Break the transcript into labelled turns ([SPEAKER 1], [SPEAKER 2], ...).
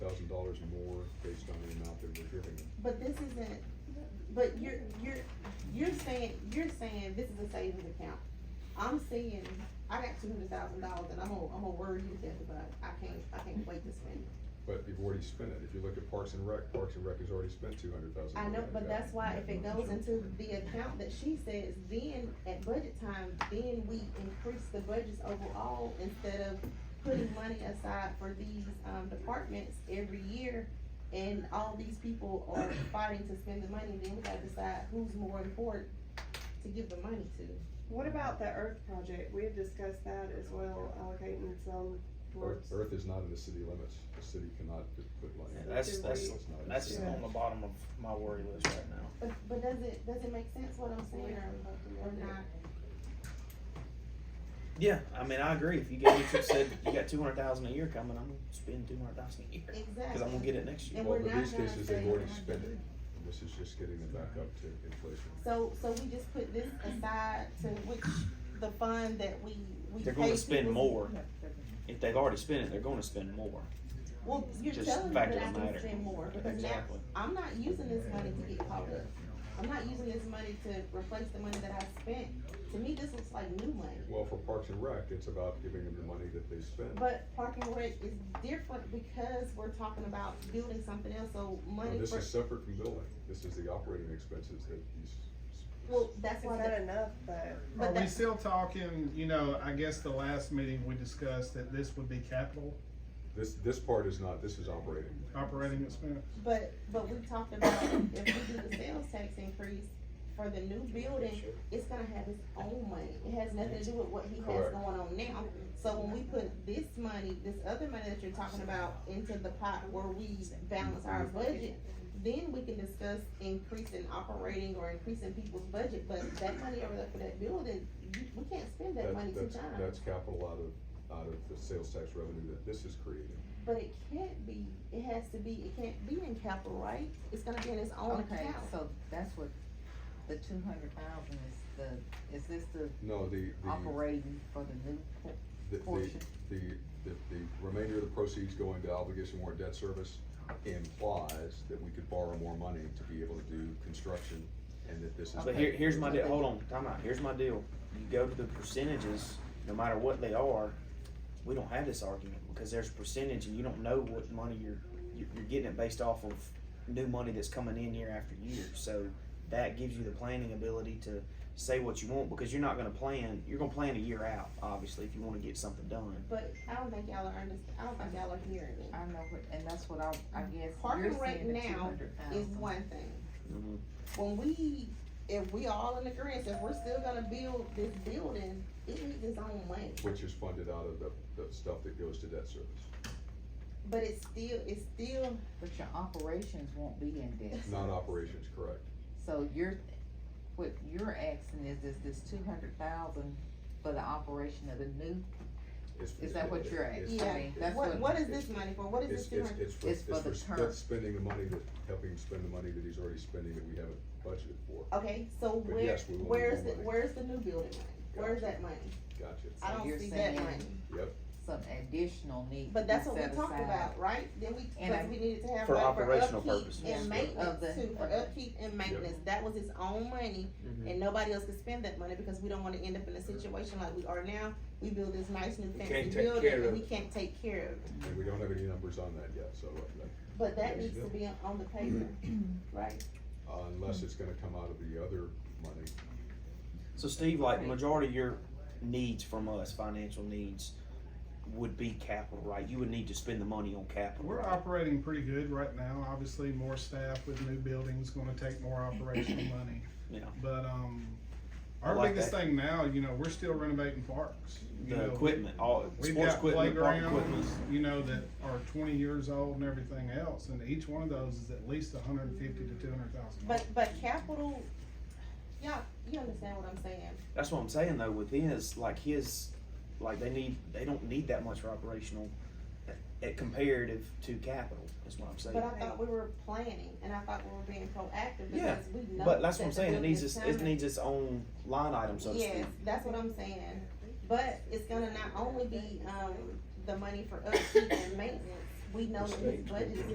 [SPEAKER 1] dollars more based on the amount that we're giving them.
[SPEAKER 2] But this isn't, but you're, you're, you're saying, you're saying this is a savings account. I'm saying, I got two hundred thousand dollars and I'm gonna, I'm gonna worry you death, but I can't, I can't wait to spend it.
[SPEAKER 1] But you've already spent it. If you look at Parks and Rec, Parks and Rec has already spent two hundred thousand.
[SPEAKER 2] I know, but that's why if it goes into the account that she says, then at budget time, then we increase the budgets overall instead of putting money aside for these, um, departments every year. And all these people are fighting to spend the money, then we gotta decide who's more important to give the money to.
[SPEAKER 3] What about the Earth project? We had discussed that as well, allocating some towards.
[SPEAKER 1] Earth, Earth is not in the city limits. The city cannot p- put money. in.
[SPEAKER 3] That's- that's-
[SPEAKER 1] It's not in the
[SPEAKER 4] That's
[SPEAKER 1] city.
[SPEAKER 4] on the bottom of my worry list right now.
[SPEAKER 2] But, but does it, does it make sense what I'm saying or, or not?
[SPEAKER 4] Yeah, I mean, I agree. If you gave me, you said you got two hundred thousand a year coming, I'm gonna spend two hundred thousand a year, cause I'm gonna
[SPEAKER 2] Exactly.
[SPEAKER 4] get it next year.
[SPEAKER 2] And
[SPEAKER 1] Well,
[SPEAKER 2] we're
[SPEAKER 1] but
[SPEAKER 2] not
[SPEAKER 1] these
[SPEAKER 2] gonna
[SPEAKER 1] cases, they've
[SPEAKER 2] say-
[SPEAKER 1] already spent it. And This is just getting them back up to inflation.
[SPEAKER 2] So, so we just put this aside to which, the fund that we, we
[SPEAKER 4] They're
[SPEAKER 2] pay
[SPEAKER 4] gonna spend
[SPEAKER 2] people-
[SPEAKER 4] more. If they've already spent it, they're gonna spend more.
[SPEAKER 2] Well, you're
[SPEAKER 4] Just
[SPEAKER 2] telling me
[SPEAKER 4] fact
[SPEAKER 2] that
[SPEAKER 4] of
[SPEAKER 2] I
[SPEAKER 4] the
[SPEAKER 2] can
[SPEAKER 4] matter.
[SPEAKER 2] spend more, because now,
[SPEAKER 4] Exactly.
[SPEAKER 2] I'm not using this money to get caught up. I'm not using this money to replace the money that I spent. To me, this looks like new money.
[SPEAKER 1] Well, for Parks and Rec, it's about giving them the money that they spend.
[SPEAKER 2] But parking rec is different because we're talking about building something else, so
[SPEAKER 1] Now,
[SPEAKER 2] money
[SPEAKER 1] This
[SPEAKER 2] for,
[SPEAKER 1] is separate from billing. This is the operating expenses that he's.
[SPEAKER 2] well, that's
[SPEAKER 3] Is
[SPEAKER 2] why
[SPEAKER 3] that
[SPEAKER 2] that,
[SPEAKER 3] enough, but
[SPEAKER 2] But
[SPEAKER 5] Are we
[SPEAKER 2] that-
[SPEAKER 5] still talking, you know, I guess the last meeting we discussed that this would be capital
[SPEAKER 1] This, this part is not, this is operating.
[SPEAKER 5] operating expense?
[SPEAKER 2] but, but we talked about if we do the sales tax increase for the new building, it's gonna have its own money. It has nothing to do with what he has
[SPEAKER 1] Correct.
[SPEAKER 2] going on now. So when we put this money, this other money that you're talking about into the pot where we balance our budget, then we can discuss increasing operating or increasing people's budget, but that money over there for that building, you- we can't spend that
[SPEAKER 1] That-
[SPEAKER 2] money two
[SPEAKER 1] that's-
[SPEAKER 2] times.
[SPEAKER 1] That's capital out of, out of the sales tax revenue that this is creating.
[SPEAKER 2] But it can't be, it has to be, it can't be in capital, right? It's gonna be in its own
[SPEAKER 6] Okay,
[SPEAKER 2] account.
[SPEAKER 6] so that's what, the two hundred thousand is the, is this the
[SPEAKER 1] No, the, the,
[SPEAKER 6] operating for the new por-
[SPEAKER 1] the, the,
[SPEAKER 6] portion?
[SPEAKER 1] the, the the remainder of the proceeds going to obligation warrant debt service implies that we could borrow more money to be able to do construction and that this is.
[SPEAKER 4] But here, here's my deal, hold on, time out, here's my deal. You go to the percentages, no matter what they are, we don't have this argument, because there's percentage and you don't know what money you're, you're, you're getting it based off of new money that's coming in year after year, so that gives you the planning ability to say what you want, because you're not gonna plan, you're gonna plan a year out, obviously, if you wanna get something done.
[SPEAKER 2] But I don't think y'all are under, I don't think y'all are hearing me.
[SPEAKER 6] I know, what- and that's what I, I guess
[SPEAKER 2] Parking
[SPEAKER 6] you're
[SPEAKER 2] right
[SPEAKER 6] saying the two
[SPEAKER 2] now
[SPEAKER 6] hundred
[SPEAKER 2] Is
[SPEAKER 6] thousand.
[SPEAKER 2] one thing.
[SPEAKER 1] Mm-hmm.
[SPEAKER 2] When we, if we all in agreement, if we're still gonna build this building, it needs its own money.
[SPEAKER 1] Which is funded out of the, the stuff that goes to debt service.
[SPEAKER 2] But it's still, it's still,
[SPEAKER 6] But your operations won't be in debt,
[SPEAKER 1] Not operations, correct.
[SPEAKER 6] so you're, what you're asking is, is this two hundred thousand for the operation of the new,
[SPEAKER 1] It's-
[SPEAKER 6] is that what you're
[SPEAKER 1] it's-
[SPEAKER 6] asking?
[SPEAKER 2] Yeah.
[SPEAKER 6] I mean, That's
[SPEAKER 2] what, what is
[SPEAKER 1] it's-
[SPEAKER 2] this money for? What is this
[SPEAKER 1] It's,
[SPEAKER 2] doing?
[SPEAKER 1] it's, it's for,
[SPEAKER 6] It's
[SPEAKER 1] it's
[SPEAKER 6] for the
[SPEAKER 1] for sp-
[SPEAKER 6] current.
[SPEAKER 1] spending the money that, helping him spend the money that he's already spending that we haven't budgeted for.
[SPEAKER 2] Okay, so
[SPEAKER 1] But
[SPEAKER 2] where,
[SPEAKER 1] yes, we will need
[SPEAKER 2] where's the,
[SPEAKER 1] more money.
[SPEAKER 2] where's the new building money? Where's
[SPEAKER 1] Gotcha.
[SPEAKER 2] that money?
[SPEAKER 1] Gotcha.
[SPEAKER 2] I
[SPEAKER 6] So
[SPEAKER 2] don't
[SPEAKER 6] you're
[SPEAKER 2] see that
[SPEAKER 6] saying-
[SPEAKER 2] money.
[SPEAKER 6] some additional need.
[SPEAKER 2] But
[SPEAKER 6] to
[SPEAKER 2] that's
[SPEAKER 6] be
[SPEAKER 2] what we
[SPEAKER 6] set
[SPEAKER 2] talked
[SPEAKER 6] aside.
[SPEAKER 2] about, right? Then we,
[SPEAKER 6] And
[SPEAKER 2] cause
[SPEAKER 6] I-
[SPEAKER 2] we needed to have
[SPEAKER 4] For
[SPEAKER 2] money for
[SPEAKER 4] operational
[SPEAKER 2] upkeep
[SPEAKER 4] purposes.
[SPEAKER 2] and
[SPEAKER 6] Of
[SPEAKER 2] maintenance
[SPEAKER 6] the-
[SPEAKER 2] too, for
[SPEAKER 6] okay.
[SPEAKER 2] upkeep and maintenance. That was its own money
[SPEAKER 4] Mhm.
[SPEAKER 2] and nobody else could spend that money because we don't wanna end up in a situation like we are now. We build this nice new fancy
[SPEAKER 7] can't take care
[SPEAKER 2] building
[SPEAKER 7] of
[SPEAKER 2] and we can't take care of it.
[SPEAKER 1] And we don't have any numbers on that yet, so, uh,
[SPEAKER 2] But that
[SPEAKER 1] Yes,
[SPEAKER 2] needs
[SPEAKER 1] yeah.
[SPEAKER 2] to be on- on the paper,
[SPEAKER 4] Mm-hmm.
[SPEAKER 2] right?
[SPEAKER 1] uh, unless it's gonna come out of the other money,
[SPEAKER 4] So Steve, like
[SPEAKER 6] Right.
[SPEAKER 4] majority of your needs from us, financial needs, would be capital, right? You would need to spend the money on capital,
[SPEAKER 5] We're
[SPEAKER 4] right?
[SPEAKER 5] operating pretty good right now. Obviously, more staff with new buildings gonna take more operational money.
[SPEAKER 4] Yeah.
[SPEAKER 5] But, um,
[SPEAKER 4] I
[SPEAKER 5] our
[SPEAKER 4] like
[SPEAKER 5] biggest thing now, you know, we're still renovating parks. you
[SPEAKER 4] The
[SPEAKER 5] know.
[SPEAKER 4] equipment, all,
[SPEAKER 5] We've
[SPEAKER 4] sports
[SPEAKER 5] got
[SPEAKER 4] equipment, park equipment.
[SPEAKER 5] playgrounds, you know, that are twenty years old and everything else, and each one of those is at least hundred and fifty to two hundred thousand.
[SPEAKER 2] But, but capital, y'all, you understand what I'm saying?
[SPEAKER 4] That's what I'm saying though, with his, like his, like they need, they don't need that much for operational, uh, comparative to capital, is what I'm saying.
[SPEAKER 2] But I thought we were planning and I thought we were being proactive
[SPEAKER 4] Yeah,
[SPEAKER 2] because we know.
[SPEAKER 4] But that's
[SPEAKER 2] that
[SPEAKER 4] what I'm
[SPEAKER 2] the
[SPEAKER 4] saying, it
[SPEAKER 2] building
[SPEAKER 4] needs
[SPEAKER 2] is
[SPEAKER 4] its, it
[SPEAKER 2] coming.
[SPEAKER 4] needs its own line item, so to
[SPEAKER 2] Yes,
[SPEAKER 4] speak.
[SPEAKER 2] that's what I'm saying, but it's gonna um, not only be, um, the money for upkeep and maintenance, we know that his budget is